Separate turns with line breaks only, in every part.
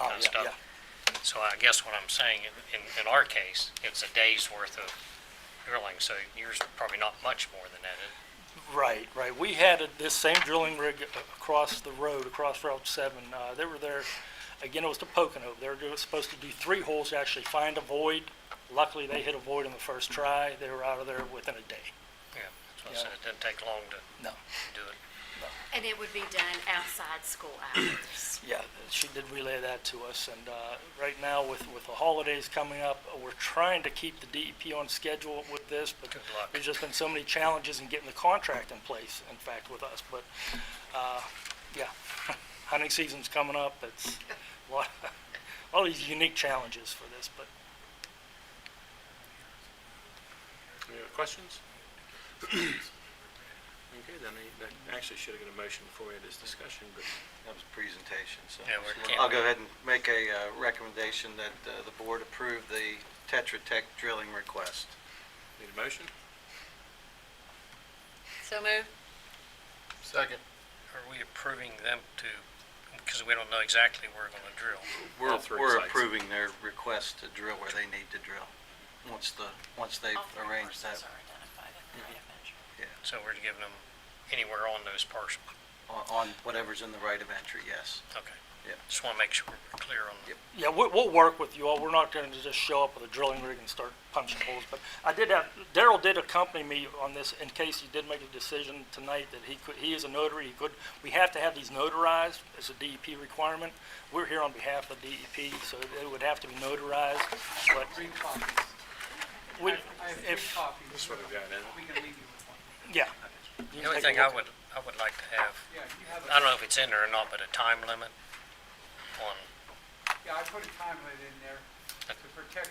Oh,
kind of
yeah,
stuff. So I guess what I'm saying, in- in, in our case, it's a day's worth of drilling, so yours probably not much more than that. It-
Right, right. We had a- this same drilling rig a- across the road, across Route 7. Uh, They were there, again, it was to Pocono. They were doing- supposed to do three holes to actually find a void. Luckily, they hit a void on the first try. They were out of there within a day.
Yeah, so I said it didn't take long to
No.
do it.
And it would be done outside school hours.
Yeah, she did relay that to us, and uh, right now with, with the holidays coming up, we're trying to keep the DEP on schedule with this, but
Good luck.
there's just been so many challenges in getting the contract in place, in fact, with us, but, uh, yeah, hunting season's coming up, it's a lot, all these unique challenges for this, but
Any other questions? Okay, then I- that actually should have got a motion before we had this discussion, but
That was presentation, so.
Yeah, we're can't-
I'll go ahead and make a uh, recommendation that uh, the board approve the Tetra Tech drilling request.
need a motion?
So moved.
Second.
Are we approving them to, because we don't know exactly where we're going to drill.
We're-
All three
We're
sites.
approving their request to drill where they need to drill, once the, once they've arranged that
So we're giving them anywhere on those parcels.
on- on whatever's in the right of entry, yes.
Okay.
Yeah.
Just want to make sure we're clear on the
Yep.
Yeah, we'll, we'll work with you all. We're not going to just show up with a drilling rig and start punching holes. But I did have, Daryl did accompany me on this in case he did make a decision tonight that he could, he is a notary, he could, we have to have these notarized as a DEP requirement. We're here on behalf of DEP, so it would have to be notarized, but
Three copies.
we,
I have three
if,
copies.
That's what we got, isn't it?
We can leave you with one.
yeah.
The only thing I would, I would like to have,
Yeah, you have
I
a,
don't know if it's in there or not, but a time limit on,
yeah, I put a time limit in there to protect,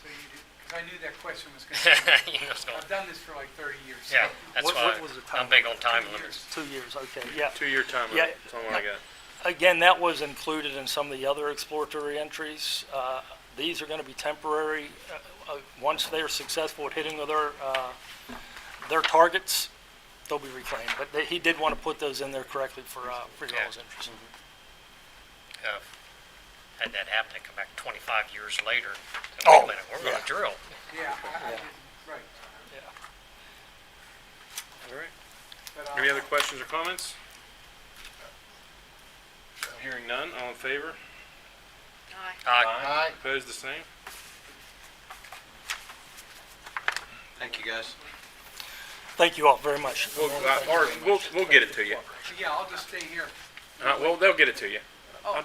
so you, because I knew that question was going to come.
you know, it's gonna-
I've done this for like 30 years.
yeah, that's
What-
why
what was the time
I'm big on time
Two
limits.
years.
Two years, okay, yeah.
Two-year time
Yeah.
limit, that's all I got.
Again, that was included in some of the other exploratory entries. Uh, These are going to be temporary. Uh, uh, Once they are successful at hitting their, uh, their targets, they'll be reclaimed. But they- he did want to put those in there correctly for, uh, for y'all's interest.
Uh, Had that happen, it come back 25 years later, and
Oh,
wait a minute, we're going
yeah.
to drill.
Yeah, I, I didn't, right.
Yeah.
All right.
But uh, I'll-
Any other questions or comments? Hearing none, all in favor?
Uh,
Aye.
Opposed, the same?
Thank you, guys.
Thank you all very much.
We'll, uh, or, we'll, we'll get it to you.
Yeah, I'll just stay here.
Uh, well, they'll get it to you.
Oh,
I'll-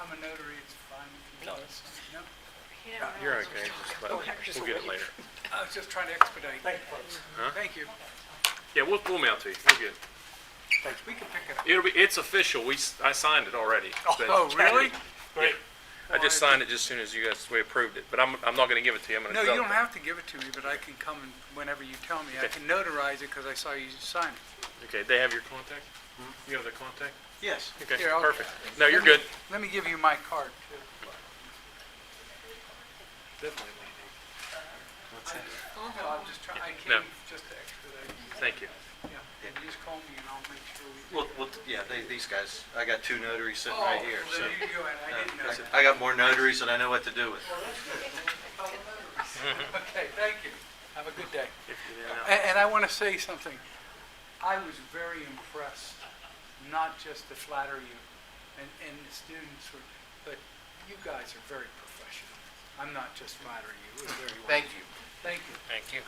I'm a notary, it's fine. if you
No.
do this. No,
You're okay, Oh, just let- we'll get it later.
I was just trying to expedite.
Thank you, folks.
Thank you.
Yeah, we'll, we'll mail it to you, we'll get it.
We can pick it up.
It'll be, it's official, we, s- I signed it already. but-
Oh, really?
Great.
I just signed it just soon as you guys, we approved it, but I'm, I'm not gonna give it to you, I'm gonna.
No, you
develop
don't
it.
have to give it to me, but I can come and whenever you tell me. I
Okay.
can notarize it because I saw you sign it.
Okay, they have your contact? You have their contact?
Yes.
Okay,
Here, I'll-
perfect. No, you're good.
Let me give you my card, too. No, I'm just trying, I
No.
came just to expedite.
Thank you.
Yeah, and you just call me and I'll make sure we.
Well, well, yeah, they, these guys, I got two notaries sitting right here,
Oh,
so. uh,
there you go, and I didn't know
I got more notaries than I know what to do with.
that. Okay, thank you. Have a good day.
If you didn't know.
And, and I want to say something. I was very impressed, not just to flatter you and, and the students were, but you guys are very professional. I'm not just flattering you, it was very well.
Thank you.
Thank you.
Thank you.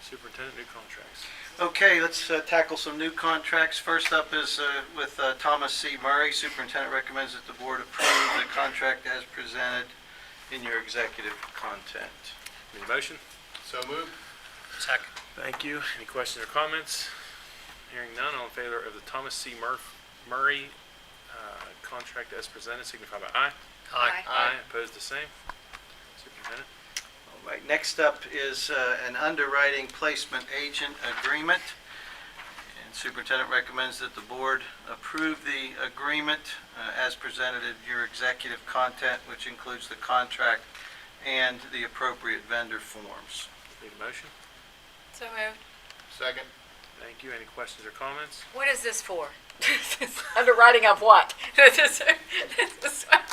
Superintendent, new contracts.
Okay, let's uh, tackle some new contracts. First up is uh, with uh, Thomas C. Murray. Superintendent recommends that the board approve the contract as presented in your executive content.
Need a motion?
So moved.
Second,
Thank you. Any questions or comments? Hearing none, all in favor of the Thomas C. Murph, Murray, uh, contract as presented, signify by aye.
aye.
Aye.
Opposed, the same. Superintendent?
All right, next up is uh, an underwriting placement agent agreement. And superintendent recommends that the board approve the agreement uh, as presented in your executive content, which includes the contract and the appropriate vendor forms.
Need a motion?
So moved.
Second.
Thank you. Any questions or comments?
What is this for? Underwriting of what? This is- this is-